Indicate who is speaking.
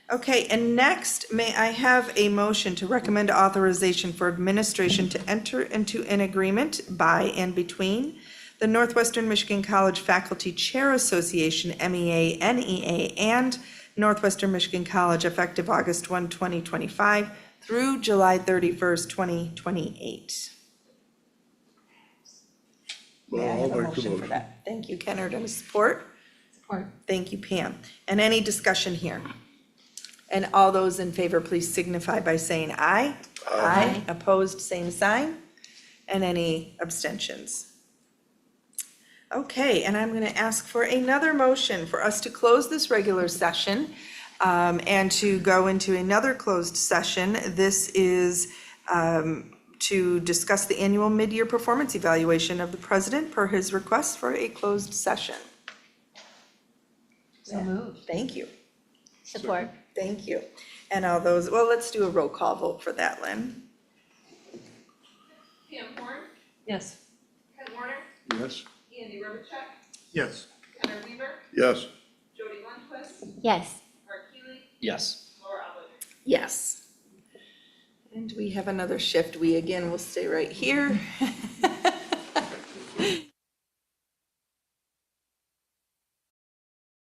Speaker 1: Okay, and next, may I have a motion to recommend authorization for administration to enter into an agreement by and between the Northwestern Michigan College Faculty Chair Association, E MEA, NEA, and Northwestern Michigan College effective August 1, 2025 through July 31st, 2028?
Speaker 2: Well,
Speaker 1: May I
Speaker 2: I'll
Speaker 1: have a
Speaker 2: make the
Speaker 1: motion for
Speaker 2: motion.
Speaker 1: that? Thank you, Kennard, and a support?
Speaker 3: Support.
Speaker 1: Thank you, Pam. And any discussion here? And all those in favor, please signify by saying aye. Aye. Opposed, same sign. And any abstentions? Okay, and I'm going to ask for another motion for us to close this regular session um, and to go into another closed session. This is um, to discuss the annual mid-year performance evaluation of the president per his request for a closed session.
Speaker 3: So moved.
Speaker 1: Thank you.
Speaker 3: Support.
Speaker 1: Thank you. And all those, well, let's do a roll call vote for that, Lynn.
Speaker 4: Pam Horn,
Speaker 3: Yes.
Speaker 4: Ken Warner,
Speaker 2: Yes?
Speaker 4: Andy Robichuk,
Speaker 2: Yes.
Speaker 4: Heather Weaver,
Speaker 2: Yes.
Speaker 4: Jody Lundquist,
Speaker 3: Yes.
Speaker 4: Art Keeley,
Speaker 5: Yes.
Speaker 4: Laura Alwinger.
Speaker 1: Yes. And we have another shift. We again will stay right here.